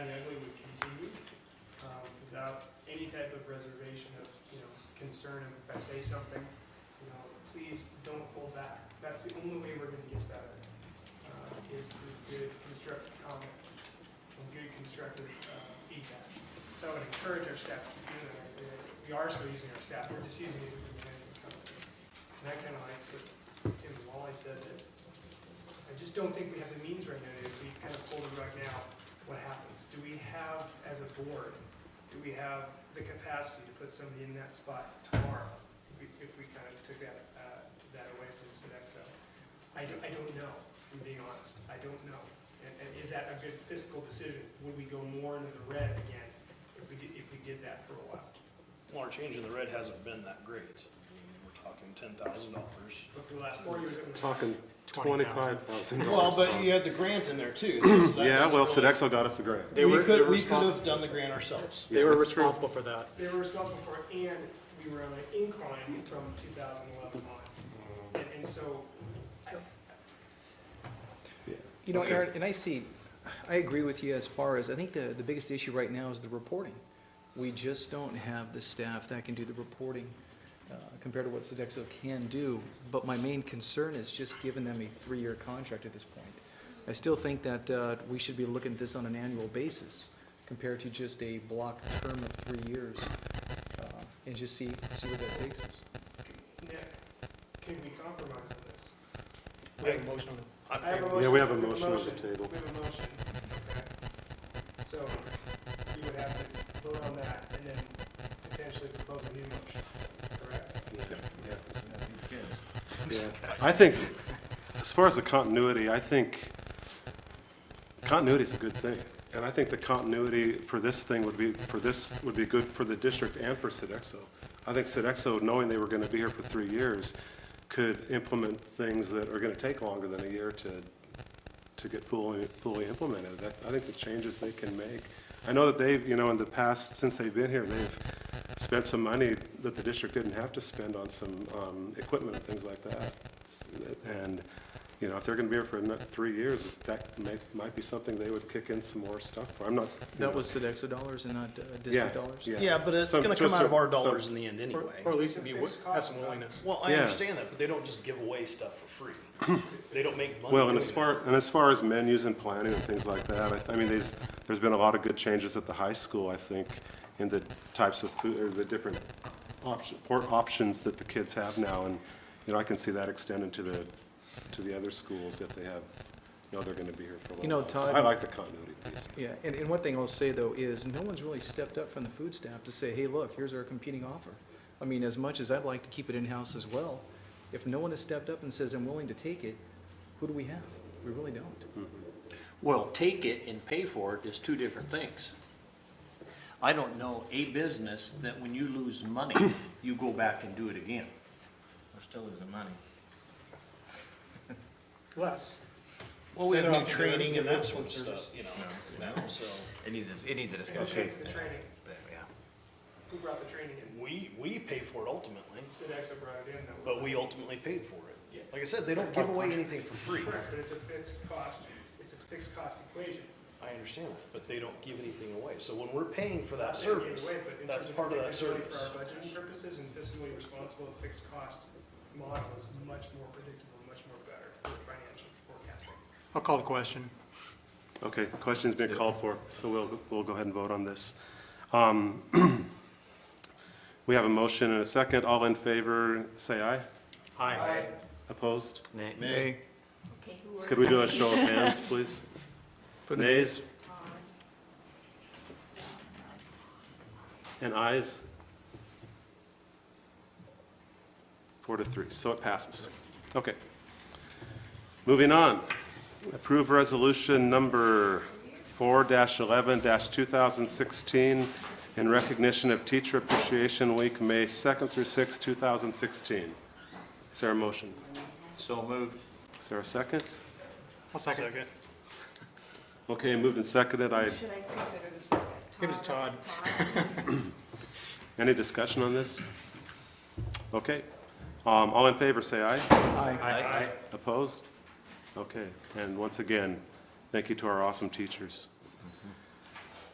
um, type of reservation of, you know, concern if I say something, you know, please don't hold back. That's the only way we're gonna get better, uh, is through good constructive comment and good constructive, uh, feedback. So I would encourage our staff to do that. Uh, We are still using our staff, we're just using it for management company. And I kinda like what Tim Wally said that I just don't think we have the means right now, if we kind of pull the rug now, what happens? Do we have, as a board, do we have the capacity to put somebody in that spot tomorrow? If we, if we kind of took that, uh, that away from Sodexo? I don't, I don't know, I'm being honest, I don't know. And, and is that a good fiscal decision? Would we go more into the red again if we did, if we did that for a while? Well, our change in the red hasn't been that great. I mean, We're talking ten thousand dollars. But for the last four years, it was. Talking twenty-five thousand Well, dollars. but you had the grant in there too. so that Yeah, doesn't well, really- Sodexo got us the grant. They were- We they could, were we could have responsible. done the grant ourselves. They were Yeah, that's true. responsible for that. They were responsible for it, and we were on an incline from 2011 on. And, and so, I, You know, Okay. Aaron, and I see, I agree with you as far as, I think the, the biggest issue right now is the reporting. We just don't have the staff that can do the reporting uh, compared to what Sodexo can do. But my main concern is just giving them a three-year contract at this point. I still think that uh, we should be looking at this on an annual basis compared to just a block term of three years uh, and just see, see where that takes us. Nick, can we compromise on this? We have a motion on it. I- I have a Yeah, we have a we motion on the table. We have a motion, okay? So, you would have to vote on that, and then potentially propose a new motion, correct? Yeah. I think, as far as the continuity, I think continuity is a good thing. And I think the continuity for this thing would be, for this, would be good for the district and for Sedexo. I think Sedexo, knowing they were going to be here for three years, could implement things that are going to take longer than a year to, to get fully, fully implemented. That- I think the changes they can make. I know that they've, you know, in the past, since they've been here, they've spent some money that the district didn't have to spend on some um, equipment and things like that. And, you know, if they're going to be here for another three years, that may, might be something they would kick in some more stuff for. I'm not. you That know, was Sodexo dollars and not uh, yeah, district dollars? Yeah, but it's Some- gonna come just out of some- our some- dollars in the end anyway. Or at least It's a if you would fixed have cost, some Doc. willingness. Well, I Yeah. understand that, but they don't just give away stuff for free. They don't make money. Well, and as doing far, and as far as menus and planning and things like that, I, I mean, there's, there's been a lot of good changes at the high school, I think, in the types of food, or the different option, or options that the kids have now, and, you know, I can see that extended to the, to the other schools if they have, you know, they're gonna be here for a You know, little while. So Todd- I like the continuity piece. Yeah, and, and one thing I'll say though is, no one's really stepped up from the food staff to say, hey, look, here's our competing offer. I mean, as much as I'd like to keep it in-house as well, if no one has stepped up and says, I'm willing to take it, who do we have? We really don't. Well, take it and pay for it is two different things. I don't know a business that when you lose money, you go back and do it again. We're still losing money. Less. Well, we have Better new off if they're training and that sort individual of stuff, you know, now, so. It needs, it needs a And who discussion. paid for the training? Yeah. Who brought the training in? We, we pay for it ultimately, Sodexo brought it in, that was. but we ultimately paid for Yeah. it. Like I said, they don't give away anything for free. Correct, but it's a fixed cost, it's a fixed cost equation. I understand that, but they don't give anything away. So when we're paying for that They gave service, away, but in that's terms part of that predictability service. For our budgeting purposes and fiscally responsible fixed cost model is much more predictable, much more better for financial forecasting. I'll call the question. Okay, question's been called for, so we'll, we'll go ahead and vote on this. Um, We have a motion and a second. All in favor, say aye. Aye. Opposed? Nay. Nay. Okay, who are? Could we do a show of hands, please? Nays and ayes? Four to three, so it passes. Okay. Moving on. Approve resolution number four eleven two thousand sixteen in recognition of Teacher Appreciation Week, May second through sixth, two thousand sixteen. Is there a motion? So moved. Is there a second? I'll second. Okay, moved and seconded. I Should I consider this like a Give it to Todd. Any discussion on this? Okay. Um, All in favor, say aye. Aye. Opposed? Okay. And once again, thank you to our awesome teachers.